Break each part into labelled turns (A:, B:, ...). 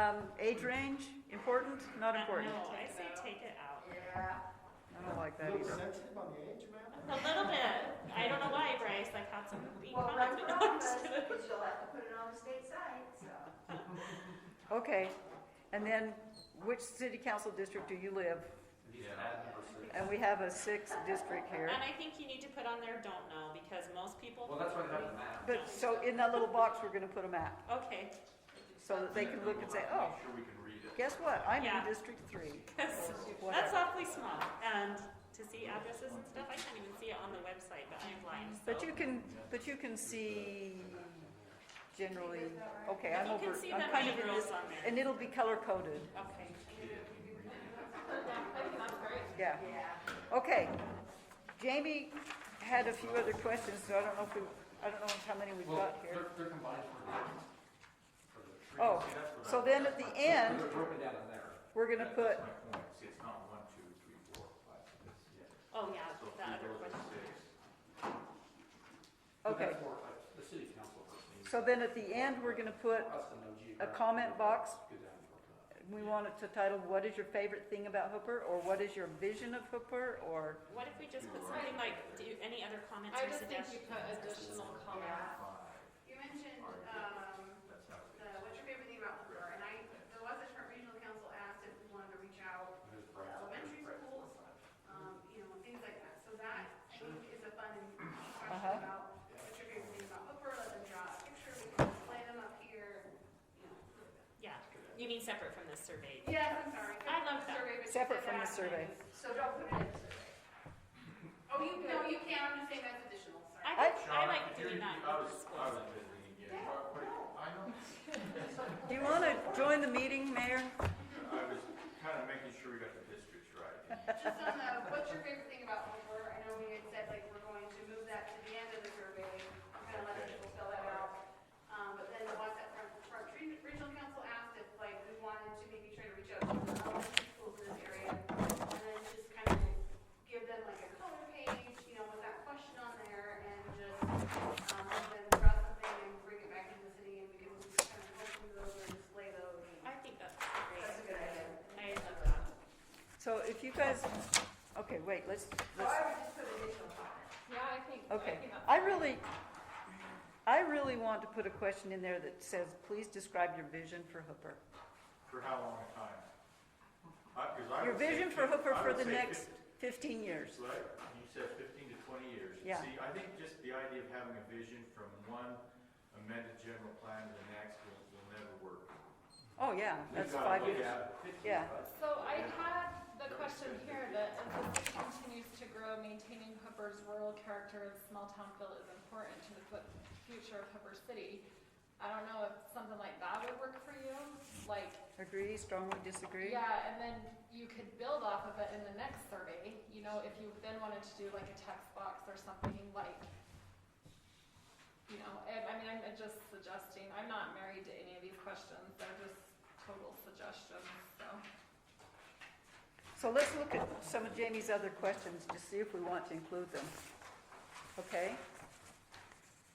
A: Um, age range, important, not important?
B: No, I say take it out.
A: I don't like that
C: Little
A: either.
C: sensitive on the age, man?
B: A little bit. I don't know why, Bryce. Like had some mean
D: Well, run
B: comments.
D: for
B: but no, I'm
D: office,
B: just kidding.
D: because you'll have to put it on the state site, so.
A: Okay, and then which city council district do you live? And we have a sixth district here.
B: And I think you need to put on there don't know because most people.
E: Well, that's why they have the map.
A: But, so in that little box, we're gonna put a map,
B: Okay,
A: so that they can look and say, oh,
E: Make sure we can read it.
A: guess what, I'm
B: Yeah.
A: in District Three.
B: 'cause that's
A: Whatever.
B: awfully small. And to see addresses and stuff, I can't even see it on the website, but I'm blind. So.
A: But you can, but you can see generally, okay,
B: If
A: I'm
B: you
A: over,
B: can see
A: I'm
B: the
A: kind of in
B: rules
A: this,
B: on there.
A: and it'll be color coded,
B: Okay.
A: yeah. Okay, Jamie had a few other questions, so I don't know if we, I don't know how many we've
E: Well,
A: got here.
E: they're, they're combined for the, for the trees.
A: Oh,
E: See, that's what
A: so
E: I-
A: then at the end,
E: They're broken down in there.
A: we're gonna
E: That-
A: put,
E: That's my point, see, it's not one, two, three, four, five, six, yeah.
B: Oh yeah,
E: So if
B: the
E: we
B: other
E: go to
B: question.
E: six. But
A: okay,
E: that's more like The city council person needs
A: so then at the end, we're gonna put,
E: us to know
A: a
E: geographically
A: comment box.
E: what's good down in Brooklyn.
A: we want it to title, what is your favorite thing about Hooper, or what is your vision of Hooper, or,
B: What if we just put something like, do you, any other comments
F: I
B: or
F: just think
B: suggestions?
F: you put additional comments.
E: Five,
G: You mentioned, um,
E: that's how it
G: the,
E: is.
G: what's your favorite thing about Hooper? And I, the Wasatch Front Regional Council asked if we wanted to reach out,
E: There's Bryce,
G: elementary
E: Bryce.
G: schools, um, you know, things like that. So that, I think, is a fun
A: Uh-huh.
G: question about what's your favorite thing about Hooper? Let them draw a picture, we can display them up here, you know.
B: Yeah, you mean separate from this survey?
G: Yes, I'm sorry.
B: I love that.
G: Survey, but you
A: Separate
G: said
A: from the
G: that.
A: survey.
D: So don't put it in the survey.
G: Oh, you, no, you can, I'm just saying that's additional, sorry.
B: I, think- I
E: Sean,
B: like
E: you-
B: doing
E: you-
B: that.
E: I
B: with
E: was,
B: this
E: I
B: one.
E: was busy again. What- what- I know.
A: do you wanna join the meeting, Mayor?
E: I was kind of making sure we got the districts right.
G: Just on the, what's your favorite thing about Hooper? I know we had said like we're going to move that to the end of the survey, kind of let people fill that out. Um, but then the ones that front, front Re- regional council asked if like we wanted to maybe try to reach out to the elementary schools in this area. And then just kind of give them like a color page, you know, with that question on there and just, um, then draw something and bring it back into the city and we can kind of go through those and display those.
B: I think that's great.
D: That's a good idea.
B: I love that.
A: So if you guys, okay, wait, let's,
D: So
A: let's,
D: I would just put additional comments.
F: Yeah, I think, I
A: okay.
F: think that's.
A: I really, I really want to put a question in there that says, please describe your vision for Hooper.
E: For how long a time? I- 'cause I
A: Your
E: would say
A: vision for
E: fif-
A: Hooper
E: I
A: for
E: would
A: the
E: say
A: next fifteen years.
E: fif- Right, you said fifteen to twenty years.
A: Yeah.
E: See, I think just the idea of having a vision from one amended general plan to the next will, will never work.
A: Oh, yeah,
E: We've
A: that's
E: gotta
A: five
E: look
A: years.
E: at it.
A: Yeah.
F: So I had the question here that as the city continues to grow, maintaining Hooper's rural character and small town feel is important to the fu- future of Hooper City. I don't know if something like that would work for you, like,
A: Agree, strongly disagree?
F: yeah, and then you could build off of it in the next survey, you know, if you then wanted to do like a text box or something like, you know, I, I mean, I'm just suggesting, I'm not married to any of these questions, they're just total suggestions, so.
A: So let's look at some of Jamie's other questions to see if we want to include them. Okay?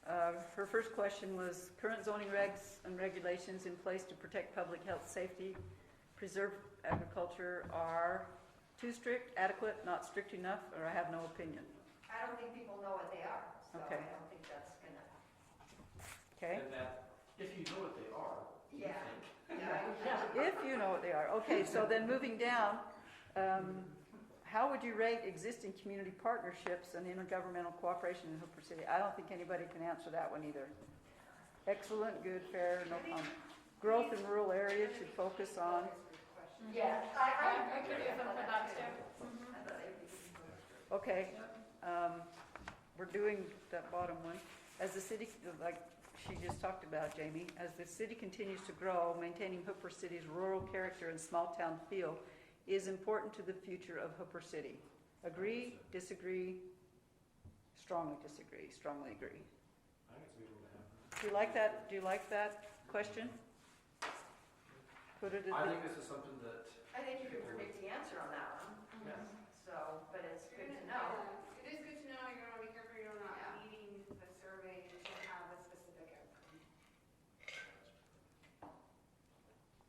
A: Uh, Her first question was, current zoning regs and regulations in place to protect public health, safety, preserve agriculture are too strict, adequate, not strict enough, or I have no opinion.
D: I don't think people know what they are, so I
A: Okay.
D: don't think that's gonna,
A: Okay?
E: And that, if you know what they are, you
D: Yeah.
E: think.
D: yeah,
A: If you know what they are. Okay, so then moving down, um, how would you rate existing community partnerships and intergovernmental cooperation in Hooper City? I don't think anybody can answer that one either. Excellent, good, fair, no comment. Growth in rural areas should focus on,
D: yeah, I, I.
F: I could use them for that too.
D: I thought they would be good.
A: okay, um, we're doing that bottom one. As the city, like she just talked about, Jamie, as the city continues to grow, maintaining Hooper City's rural character and small-town feel is important to the future of Hooper City. Agree, disagree, strongly disagree, strongly agree.
E: I think it's a good one to have.
A: Do you like that, do you like that question? Put it
E: I
A: at
E: think this
D: Mm-hmm.
E: is something that,
D: I think you could predict the answer on that one,
E: yes.
D: so, but it's good to know. uh,